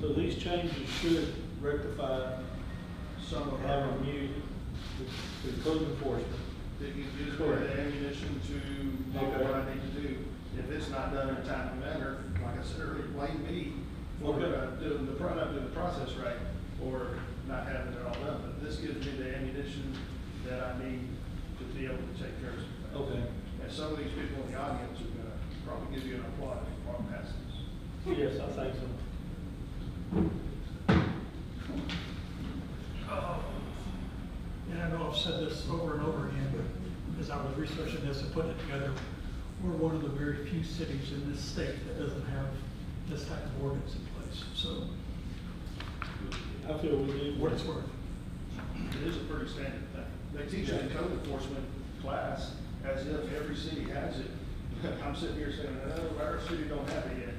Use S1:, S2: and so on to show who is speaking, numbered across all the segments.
S1: So these changes should rectify some of our new, the- the code enforcement.
S2: That gives you
S1: Correct.
S2: the ammunition to know what I need to do. If it's not done in a timely manner, like I said earlier, blame me for
S1: Okay.
S2: uh, doing the, pro- not doing the process right or not having it all done. But this gives me the ammunition that I need to be able to take care of some things.
S1: Okay.
S2: And some of these people in the audience are gonna probably give you an applause for our passes.
S1: Yes, I think so.
S3: And I know I've said this over and over again, but as I was researching this and putting it together, we're one of the very few cities in this state that doesn't have this type of ordinance in place, so
S1: I feel we need.
S3: what it's worth.
S2: It is a pretty standard thing. They teach it in code enforcement class as if every city has it. I'm sitting here saying, oh, our city don't have it yet.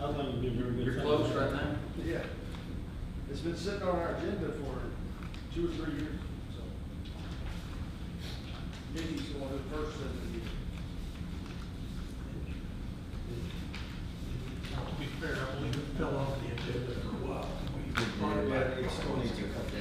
S2: So,
S1: I think it'd be a very good.
S4: You're
S1: thing.
S4: close right now?
S2: Yeah, it's been sitting on our agenda for two or three years, so. Nikki's the one who first said it.
S3: Now, to be fair, I believe it fell off the agenda for a while. We brought it back.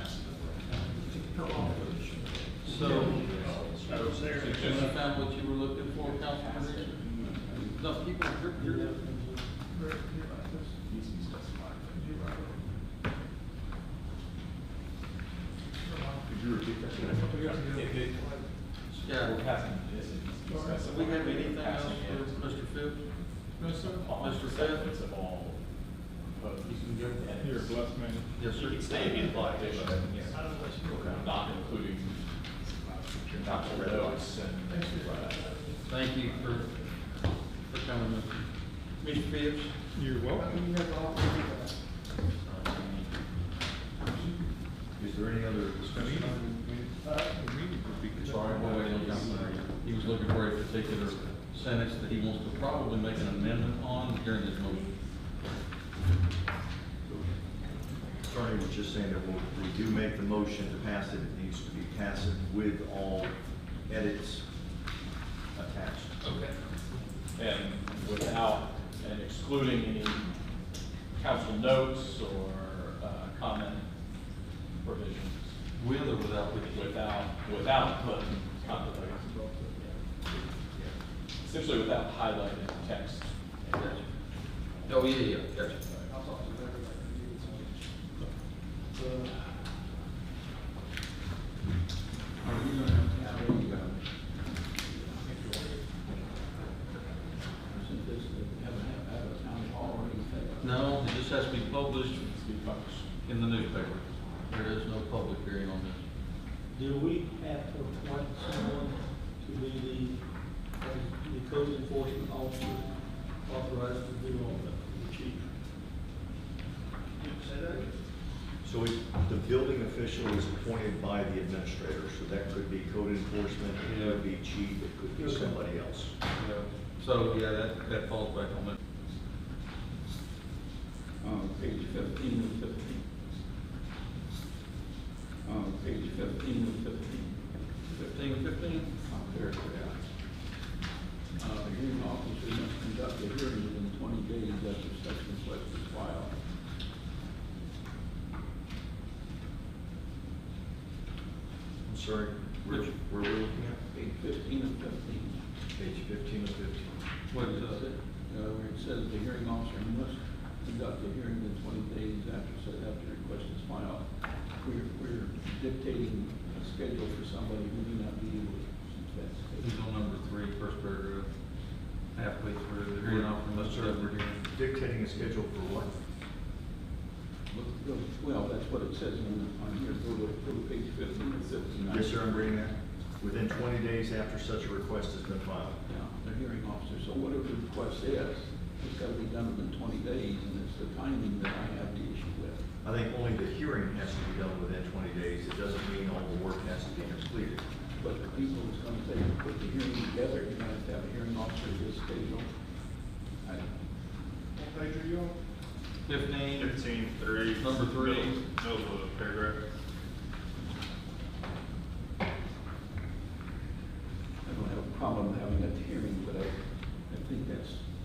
S3: It Fell off the agenda.
S4: So,
S2: That was there.
S4: did you find what you were looking for, Councilman Richard? No, keep on, you're, you're.
S3: Right, you're right, this- you're right.
S5: Could you repeat that?
S3: A couple years ago.
S4: Yeah. Do we have anything else for Mr. Phipps?
S6: No, sir.
S4: Mr. Phipps?
S6: It's a ball. But you can go ahead.
S5: You're a blessed man.
S4: Yes, sir.
S6: You can stay in the block, but, yeah, not including Dr. Red Oaks and things like that.
S4: Thank you for, for coming in. Mr. Phipps?
S5: You're welcome.
S7: Is there any other discussion?
S4: Sorry, we're waiting on Councilman Reed. He was looking for a particular sentence that he wants to probably make an amendment on during this motion.
S7: Attorney was just saying that we'll- we do make the motion to pass it, it needs to be passed with all edits attached.
S4: Okay.
S6: And without, and excluding any council notes or uh, comment provisions
S4: With or without the
S6: without, without the conflict. Essentially without highlighting text.
S4: Oh, yeah, yeah, gotcha.
S2: I'll talk to them
S4: No, it just has to be published
S6: Be published.
S4: in the newspaper. There is no public hearing on this.
S1: Do we have to appoint someone to be the, the code enforcement officer authorized to do all that, the chief?
S2: Say that again?
S7: So it- the building official is appointed by the administrator, so that could be code enforcement, it could be chief, it could be somebody else.
S4: So, yeah, that, that falls back on that.
S8: Um, page fifteen of fifteen. Um, page fifteen of fifteen.
S4: Fifteen, fifteen?
S8: I'll clear it out. Uh, the hearing officer must conduct a hearing within twenty days after such request is filed.
S7: I'm sorry, where, where were we looking at?
S8: Page fifteen of fifteen.
S7: Page fifteen of fifteen.
S4: What
S8: It
S4: is it?
S8: said, Uh, where it says the hearing officer must conduct a hearing within twenty days after such, after request is filed. We're, we're dictating a schedule for somebody who may not be able to.
S4: He's on number three, first paragraph, halfway through, the hearing officer must serve her hearing.
S7: Dictating a schedule for what?
S8: Well, that's what it says on, on here, go to, go to page fifteen or fifteen.
S7: Yes, sir, I'm reading that. Within twenty days after such a request has been filed.
S8: Yeah, the hearing officer, so whatever the request is, it's gotta be done within twenty days, and it's the timing that I have the issue with.
S7: I think only the hearing has to be done within twenty days. It doesn't mean all the work has to be completed.
S8: But the people who's gonna say, put the hearing together, you're gonna have to have a hearing officer who's scheduled. I,
S2: What page are you on?
S4: Fifteen,
S9: Fifteen, three.
S4: Number three.
S9: Middle middle of the paragraph.